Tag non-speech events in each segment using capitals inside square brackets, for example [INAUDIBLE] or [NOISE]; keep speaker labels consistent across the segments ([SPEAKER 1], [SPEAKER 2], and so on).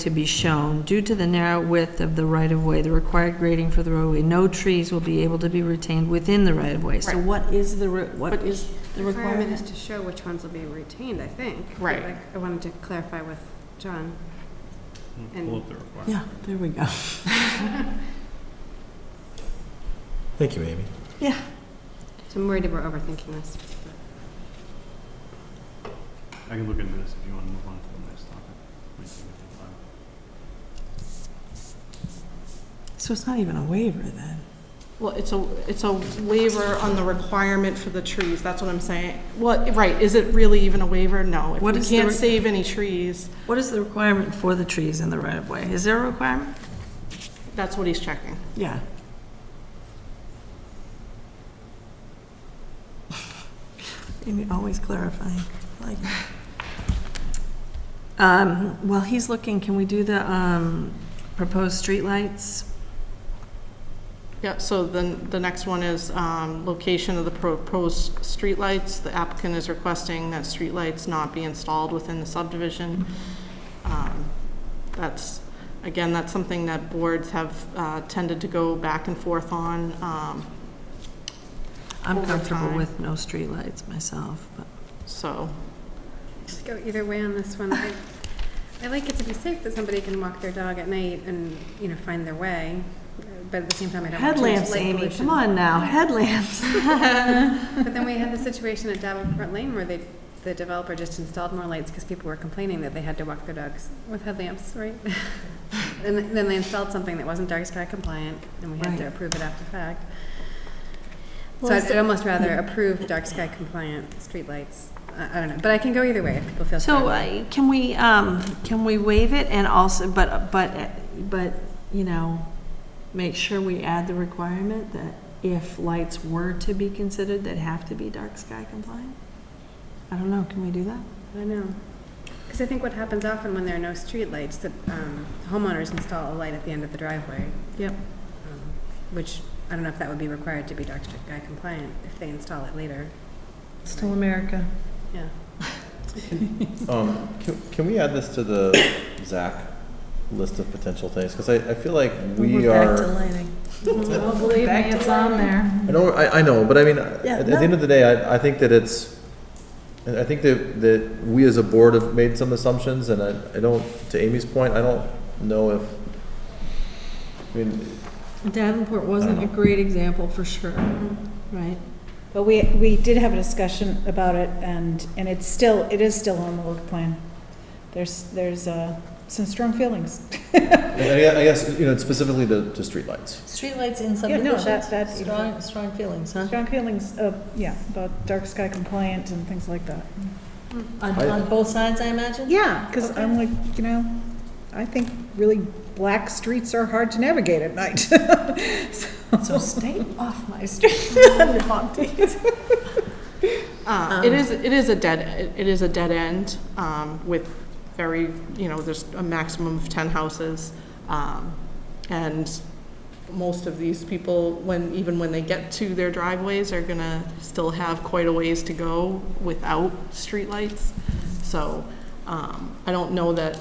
[SPEAKER 1] to be shown. Due to the narrow width of the right-of-way, the required grading for the roadway, no trees will be able to be retained within the right-of-way. So
[SPEAKER 2] Right.
[SPEAKER 1] what is the, re- what
[SPEAKER 2] But
[SPEAKER 1] is the
[SPEAKER 3] The requirement is
[SPEAKER 1] requirement?
[SPEAKER 3] to show which ones will be retained, I think.
[SPEAKER 2] Right.
[SPEAKER 3] Like, I wanted to clarify with John. And-
[SPEAKER 4] Mm. Pull up the requirement.
[SPEAKER 1] Yeah, there we go.
[SPEAKER 5] [LAUGHS] Thank you, Amy.
[SPEAKER 3] So I'm worried that we're overthinking this.
[SPEAKER 4] I can look into this if you want to move on to the next topic. Might take a little
[SPEAKER 1] So it's not even a waiver, then?
[SPEAKER 2] Well, it's a, it's a waiver on the requirement for the trees, that's what I'm saying. Well, right, is it really even a waiver? No. If
[SPEAKER 1] What
[SPEAKER 2] we
[SPEAKER 1] is the
[SPEAKER 2] can't
[SPEAKER 1] re-
[SPEAKER 2] save any trees,
[SPEAKER 1] What is the requirement for the trees in the right-of-way? Is there a requirement?
[SPEAKER 2] that's what he's checking.
[SPEAKER 1] Yeah. Amy, always clarifying, like. Um, while he's looking, can we do the, um, proposed streetlights?
[SPEAKER 2] Yeah, so then the next one is um, location of the proposed streetlights. The applicant is requesting that streetlights not be installed within the subdivision. Um, That's, again, that's something that boards have uh, tended to go back and forth on. Um,
[SPEAKER 1] I'm
[SPEAKER 2] Over
[SPEAKER 1] comfortable
[SPEAKER 2] time.
[SPEAKER 1] with no streetlights myself, but.
[SPEAKER 2] So,
[SPEAKER 3] Just go either way on this one. I I like it to be safe that somebody can walk their dog at night and, you know, find their way, but at the same time, I don't want to
[SPEAKER 1] Headlamps,
[SPEAKER 3] light
[SPEAKER 1] Amy,
[SPEAKER 3] pollution.
[SPEAKER 1] come on now, headlamps.
[SPEAKER 3] But then we had the situation at Davenport Lane where they, the developer just installed more lights because people were complaining that they had to walk their dogs with headlamps, right? [LAUGHS] And th- then they installed something that wasn't dark sky compliant, and we had to
[SPEAKER 1] Right.
[SPEAKER 3] approve it after fact. So
[SPEAKER 1] Well,
[SPEAKER 3] I'd
[SPEAKER 1] is
[SPEAKER 3] I'd almost rather approve dark sky compliant streetlights. I, I don't know, but I can go either way if people feel.
[SPEAKER 1] So,
[SPEAKER 3] strongly.
[SPEAKER 1] uh, can we, um, can we waive it and also, but, but, but, you know, make sure [LAUGHS] we add the requirement that if lights were to be considered, that have to be dark sky compliant? I don't know, can we do that?
[SPEAKER 3] I know. Because I think what happens often when there are no streetlights, that um, homeowners install a light at the end of the driveway.
[SPEAKER 2] Yep.
[SPEAKER 3] Um, Which, I don't know if that would be required to be dark sky compliant if they install it later.
[SPEAKER 1] Still America.
[SPEAKER 3] Yeah.
[SPEAKER 5] Um, can, can we add this to the Zach list of potential things? Because I, I feel like we are,
[SPEAKER 1] lighting.
[SPEAKER 5] I
[SPEAKER 1] Believe me, it's on there.
[SPEAKER 5] know, I, I know, but I mean, at,
[SPEAKER 1] Yeah,
[SPEAKER 5] at the end
[SPEAKER 1] no.
[SPEAKER 5] of the day, I, I think that it's, I I think that, that we as a board have made some assumptions, and I, I don't, to Amy's point, I don't know if, I mean,
[SPEAKER 1] Davenport wasn't a great example for sure, right?
[SPEAKER 6] But we, we did have a discussion about it, and, and it's still, it is still on the work plan. There's, there's uh, some strong feelings.
[SPEAKER 5] I I guess, you know, specifically to, to streetlights.
[SPEAKER 1] Streetlights in
[SPEAKER 6] Yeah, no, that- that-
[SPEAKER 1] strong, strong feelings, huh?
[SPEAKER 6] Strong feelings, uh, yeah, about dark sky compliant and things like that.
[SPEAKER 1] On,
[SPEAKER 5] I-
[SPEAKER 1] on both sides, I imagine?
[SPEAKER 6] Yeah. Because I'm like, you know, I think really black streets are hard to navigate at night.
[SPEAKER 1] So stay off my street. Uh-huh.
[SPEAKER 2] Uh, It is, it is a dead, it is a dead end um, with very, you know, there's a maximum of 10 houses. um, And most of these people, when, even when they get to their driveways, are going to still have quite a ways to go without streetlights. So um, I don't know that,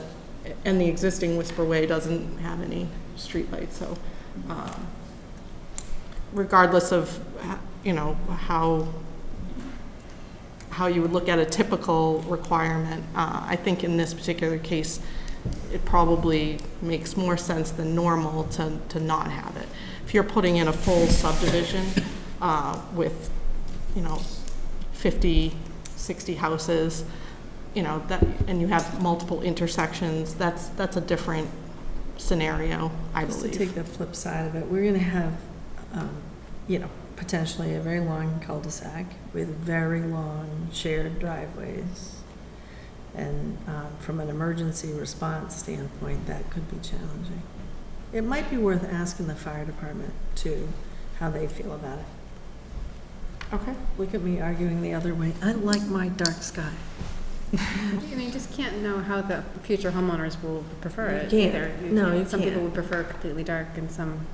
[SPEAKER 2] and the existing Whisper Way doesn't have any streetlights, so um, regardless of, h- you know, how how you would look at a typical requirement. Uh, I think in this particular case, it probably makes more sense than normal to, to not have it. If you're putting in a full subdivision uh, with, you know, 50, 60 houses, you know, that, and you have multiple intersections, that's, that's a different scenario, I
[SPEAKER 1] Just to
[SPEAKER 2] believe.
[SPEAKER 1] take the flip side of it, we're gonna have, um, you know, potentially a very long cul-de-sac with very long shared driveways. And, um, from an emergency response standpoint, that could be challenging. It might be worth asking the fire department too, how they feel about it.
[SPEAKER 2] Okay.
[SPEAKER 1] Look at me arguing the other way. I like my dark sky.
[SPEAKER 3] I mean, you just can't know how the future homeowners will prefer
[SPEAKER 1] You
[SPEAKER 3] it
[SPEAKER 1] can't.
[SPEAKER 3] either.
[SPEAKER 1] No, you
[SPEAKER 3] Some people
[SPEAKER 1] can't.
[SPEAKER 3] would prefer completely dark and some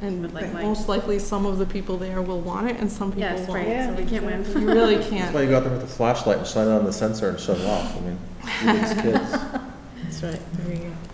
[SPEAKER 2] And
[SPEAKER 3] would like light.
[SPEAKER 2] most likely, some of the people there will want it and some people
[SPEAKER 3] Yes,
[SPEAKER 2] won't.
[SPEAKER 3] right, so we can't win.
[SPEAKER 2] You really
[SPEAKER 5] That's
[SPEAKER 3] [LAUGHS]
[SPEAKER 2] can't.
[SPEAKER 5] why you go out there with a flashlight and shine it on the sensor and shut it off. I mean, these kids.
[SPEAKER 1] That's right, there you go.